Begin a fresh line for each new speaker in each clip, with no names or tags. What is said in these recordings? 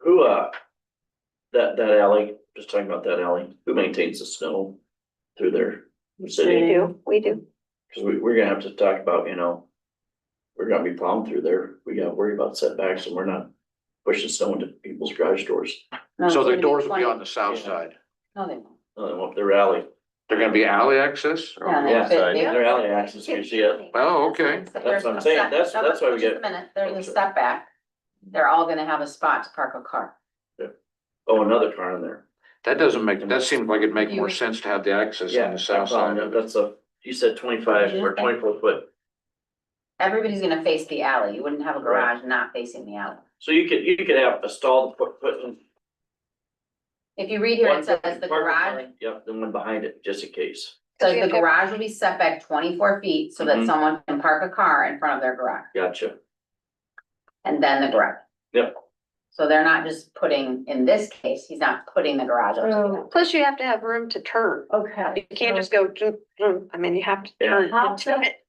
who, uh, that, that alley, just talking about that alley, who maintains the snow through there? The
We
city,
do, we do.
cause we, we're gonna have to talk about, you know, we're gonna be plowing through there. We gotta worry about setbacks and we're not pushing snow into people's garage doors.
No,
So
it's
the
gonna
doors will be
20
on the south
Yeah.
side.
No, they won't.
Uh, well, their alley,
They're gonna be alley access? or on the
Yeah.
north side?
Yeah.
their alley access, you see it.
Oh, okay.
That's what I'm saying. That's- that's why we
Just a
get-
minute, they're in
Oh,
the
sure.
setback. They're all gonna have a spot to park a car.
Oh, another car in there.
That doesn't make, that seems like it'd make more sense to have the access on the south side of it.
That's a, you said twenty-five or twenty-four foot.
Everybody's gonna face the alley. You wouldn't have a
Right.
garage not facing the alley.
So you could, you could have a stall to put, put in.
If you read here,
one
it says
parking
the garage,
line, Yep, the one behind it, just in case.
says the garage will be set back twenty-four feet so that
Mhm.
someone can park a car in front of their garage
Gotcha.
and then the garage.
Yep.
So they're not just putting, in this case, he's not putting the garage up to the alley.
Plus you have to have room to turn.
Okay.
You can't just go, zoom, zoom. I mean, you have to
Yeah.
turn.
How
into
does-
it.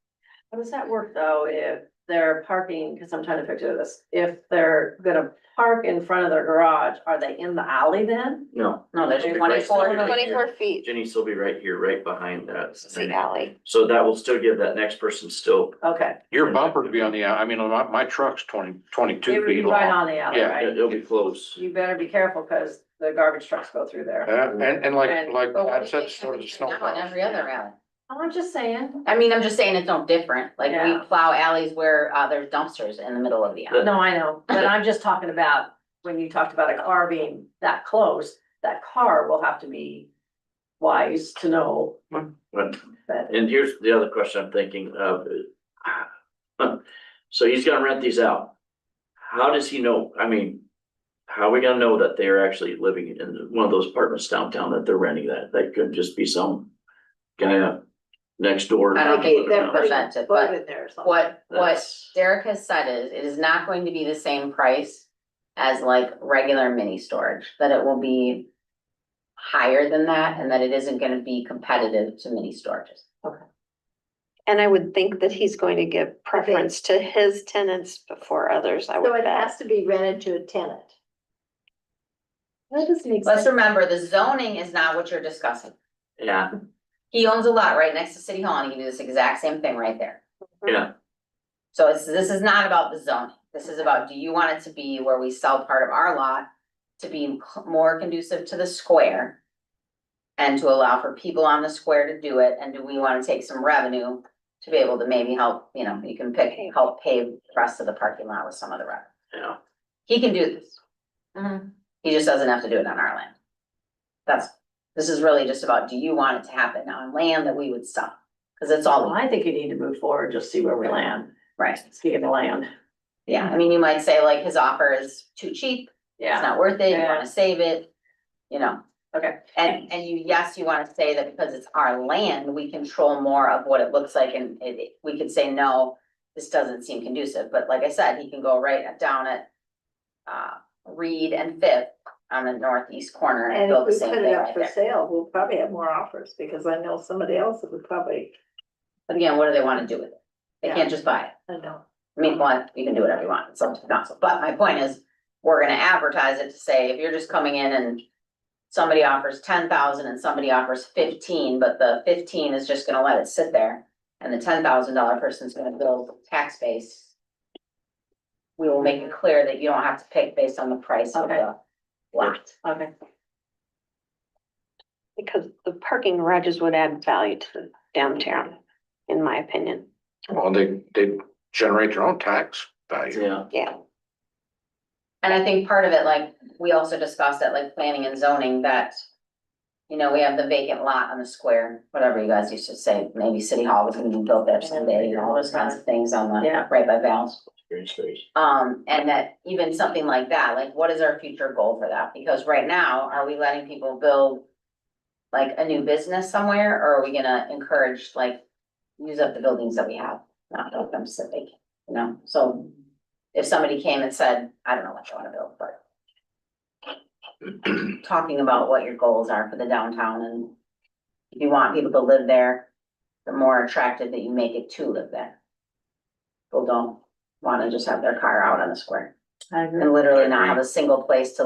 How does that work though, if they're parking, because I'm trying to picture this, if they're gonna park in front of their garage, are they in the alley then?
No,
No, there's
Right, right,
twenty-four.
right.
Twenty-four feet
Jenny's will be right here, right behind that.
is the alley.
So that will still give that next person still,
Okay,
Your bumper would be on the, out- I mean, my, my truck's twenty,
it
twenty-two
would be
feet
right
long.
on the alley,
Yeah.
right?
it'll be close.
You better be careful, because the garbage trucks go through
Uh,
there.
And, and like,
And-
like,
But what
I
do
said,
they
sort of the
do
snow.
now in Every other alley.
I'm just saying.
I mean, I'm just saying it's no different, like
Yeah.
we plow alleys where uh there's dumpsters in the middle of the alley.
No, I know, but I'm just talking about, when you talked about a car being that close, that car will have to be wise to know
Hmm.
But,
that.
and here's the other question I'm thinking of. So he's gonna rent these out. How does he know, I mean, how are we gonna know that they're actually living in one of those apartments downtown that they're renting that? That could just be some guy up next door.
I don't think they're
Down there.
presented,
Put
but
in there or something.
what what
That's-
Derek has said is, it is not going to be the same price as like regular mini storage, that it will be higher than that and that it isn't gonna be competitive to mini storages.
And I would think that he's going to give preference to his tenants before others, I
So
would
it has
bet.
to be rented to a tenant. That doesn't make
Let's
sense.
remember, the zoning is not what you're discussing.
Yeah,
He owns a lot right next to City Hall and he can do this exact same thing right there.
Yeah.
So it's, this is not about the zoning. This is about, do you want it to be where we sell part of our lot to be more conducive to the square? And to allow for people on the square to do it, and do we wanna take some revenue to be able to maybe help, you know, you can pick, help pave the rest of the parking lot with some of the revenue.
yeah.
He can do this. He just doesn't have to do it on our land. That's, this is really just about, do you want it to happen on land that we would sell? Cause it's
Well,
all,
Oh, I think you need to move forward, just see where we land,
right,
speaking of land,
yeah, I mean, you might say like his offer is too cheap, it's
yeah,
not worth it, you
Yeah.
wanna save it. You know,
okay.
and, and you, yes, you wanna say that because it's our land, we control more of what it looks like and it, we could say, no. This doesn't seem conducive, but like I said, he can go right down at, uh, Reed and Fifth on the northeast corner and
And
build
if
the
we
same
put
thing
it
right
up for
there.
sale, we'll probably have more offers because I know somebody else that would probably,
But again, what do they wanna do with it? They
Yeah.
can't just buy it.
I know.
I mean, one, you can do whatever you want, it's up to council, but my point is, we're gonna advertise it to say, if you're just coming in and. Somebody offers ten thousand and somebody offers fifteen, but the fifteen is just gonna let it sit there. And the ten thousand dollar person's gonna build tax base. We will make it clear that you don't have to pick based on the price of
Okay.
the lot.
Okay.
Because the parking garages would add value to the downtown, in my opinion.
Well, they, they generate their own tax value.
Yeah,
Yeah,
And I think part of it, like, we also discussed at like planning and zoning that. You know, we have the vacant lot on the square, whatever you guys used to say, maybe city hall was gonna be built there someday, and all those kinds of things on the,
Yeah.
right by Val's.
green space.
Um, and that even something like that, like what is our future goal for that? Because right now, are we letting people build? Like a new business somewhere, or are we gonna encourage like, use up the buildings that we have, not build them so they, can, you know, so. If somebody came and said, I don't know what you wanna build, but. Talking about what your goals are for the downtown and. If you want people to live there, the more attractive that you make it to live there. People don't wanna just have their car out on the square
I agree.
and literally not have a single place to like